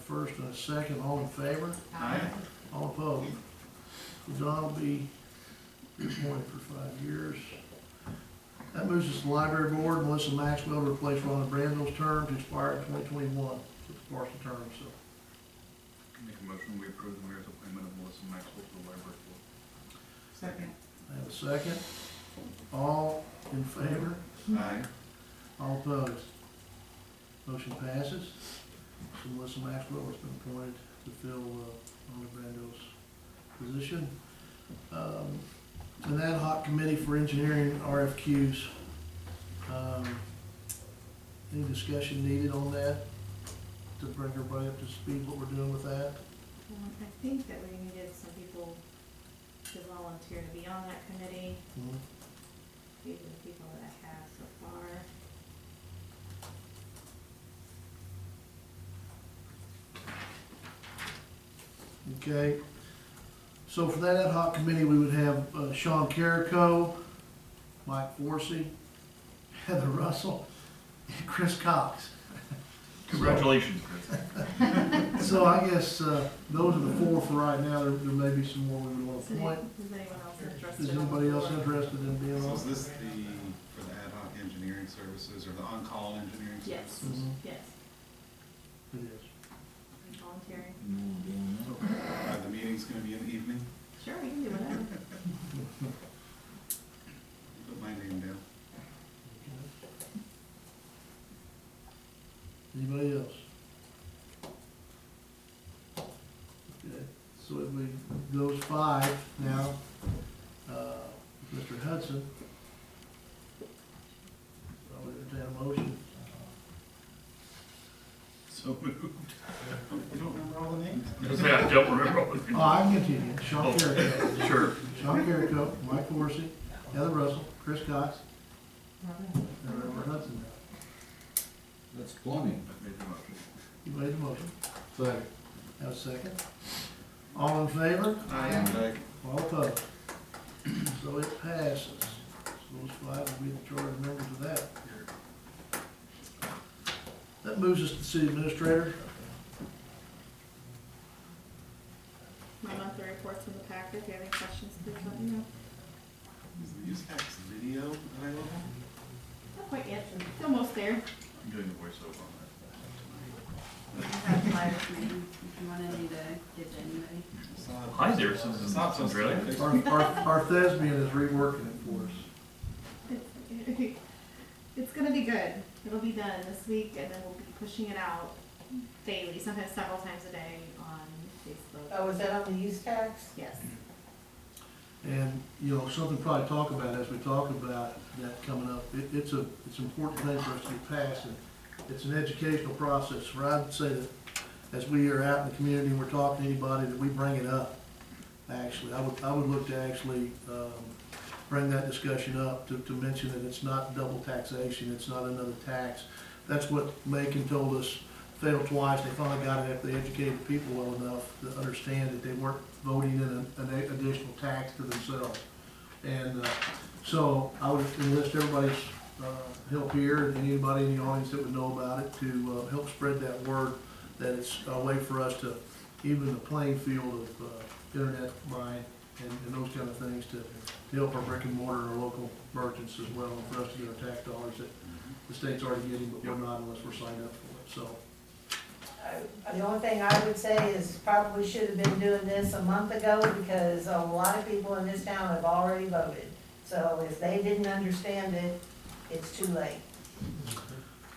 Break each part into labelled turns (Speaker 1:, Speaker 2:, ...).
Speaker 1: first and a second, all in favor?
Speaker 2: Aye.
Speaker 1: All opposed? So Don will be reappointed for five years. That moves us to the Library Board, Melissa Maxwell replaced Rhonda Brandon's term to expire in twenty twenty-one, so it's a partial term, so.
Speaker 3: Make a motion, we approve the mayor's appointment of Melissa Maxwell to the library board.
Speaker 2: Second.
Speaker 1: I have a second. All in favor?
Speaker 3: Aye.
Speaker 1: All opposed? Motion passes. So Melissa Maxwell has been appointed to fill uh, Rhonda Brando's position. Um, An ad hoc committee for engineering RFQs. Um, Any discussion needed on that to bring everybody up to speed what we're doing with that?
Speaker 4: Well, I think that we needed some people to volunteer to be on that committee,
Speaker 1: Mhm.
Speaker 4: these are the people that I have so far.
Speaker 1: Okay, so for that ad hoc committee, we would have uh, Sean Carrico, Mike Forsey, Heather Russell, and Chris Cox.
Speaker 3: Congratulations, Chris.
Speaker 1: So I guess uh, those are the four for right now, there there may be some more we would want
Speaker 4: Is
Speaker 1: to appoint.
Speaker 4: any- is anyone else interested?
Speaker 1: Is
Speaker 4: on the
Speaker 1: anybody else
Speaker 4: board?
Speaker 1: interested in being
Speaker 2: So
Speaker 1: on?
Speaker 2: is this the, for the ad hoc engineering services or the on-call engineering
Speaker 4: Yes.
Speaker 2: services?
Speaker 1: Mhm,
Speaker 4: Yes,
Speaker 1: It is.
Speaker 4: volunteering,
Speaker 2: Are the meetings gonna be in the evening?
Speaker 4: sure, we can do whatever.
Speaker 2: Put my name down.
Speaker 1: Anybody else? Okay, so if we, those five now, uh, Mr. Hudson. I'll entertain a motion.
Speaker 3: So moved.
Speaker 2: You don't remember all the names?
Speaker 3: I say, I don't remember all the
Speaker 1: Oh, I can continue, Sean Carrico,
Speaker 3: Sure.
Speaker 1: Sean Carrico, Mike Forsy, Heather Russell, Chris Cox, and Robert Hudson now.
Speaker 5: That's plumbing.
Speaker 3: I made the motion.
Speaker 1: You made the motion,
Speaker 5: Second.
Speaker 1: have a second? All in favor?
Speaker 2: Aye.
Speaker 1: All opposed? So it passes. So those five will be the charter members of that. That moves us to the city administrator.
Speaker 4: My monthly report's in the packet, if you have any questions, please let me know.
Speaker 2: Is the use tax video available?
Speaker 4: Not quite yet, it's almost there.
Speaker 3: I'm doing the voiceover on
Speaker 6: I have flyers for you, if you want any to give to anybody.
Speaker 2: It's not-
Speaker 3: Hi there, Susan.
Speaker 2: It's not so
Speaker 3: Really?
Speaker 2: specific.
Speaker 1: Our, our, our thespian is reworking it for us.
Speaker 4: It's gonna be good. It'll be done this week and then we'll be pushing it out daily, sometimes several times a day on Facebook.
Speaker 7: Oh, is that on the use tax?
Speaker 4: Yes.
Speaker 1: And, you know, something to probably talk about as we talk about that coming up, it, it's a, it's an important thing for us to get passed, and it's an educational process, where I'd say that as we are out in the community and we're talking to anybody, that we bring it up, actually. I would, I would look to actually, um, bring that discussion up, to, to mention that it's not double taxation, it's not another tax. That's what Macon told us, failed twice, they finally got it after they educated people well enough to understand that they weren't voting in an, an additional tax to themselves. And, uh, so I would enlist everybody's, uh, help here and anybody in the audience that would know about it to, uh, help spread that word that it's a way for us to, even the playing field of, uh, internet buying and, and those kind of things to, to help our brick and mortar, our local merchants as well, and for us to get our tax dollars that the state's already getting, but we're not unless we're signed up for it, so.
Speaker 7: I- The only thing I would say is probably should have been doing this a month ago because a lot of people in this town have already voted. So if they didn't understand it, it's too late.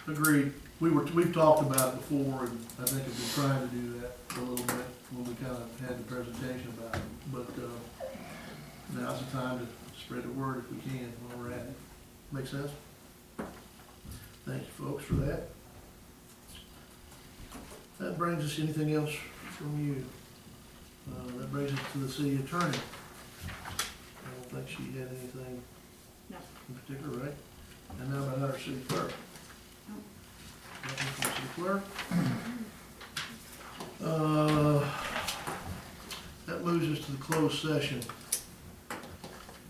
Speaker 1: Agreed. We were, we've talked about it before, and I think have been trying to do that a little bit when we kind of had the presentation about it. But, uh, now's the time to spread the word if we can while we're at it. Make sense? Thank you, folks, for that. That brings us, anything else from you? Uh, that brings us to the city attorney. I don't think she had anything
Speaker 4: No.
Speaker 1: in particular, right? And now about our city clerk. Nothing from city clerk. Uh, That moves us to the closed session.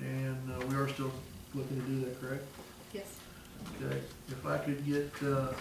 Speaker 1: And uh, we are still looking to do that, correct?
Speaker 4: Yes.
Speaker 1: Okay, if I could get uh,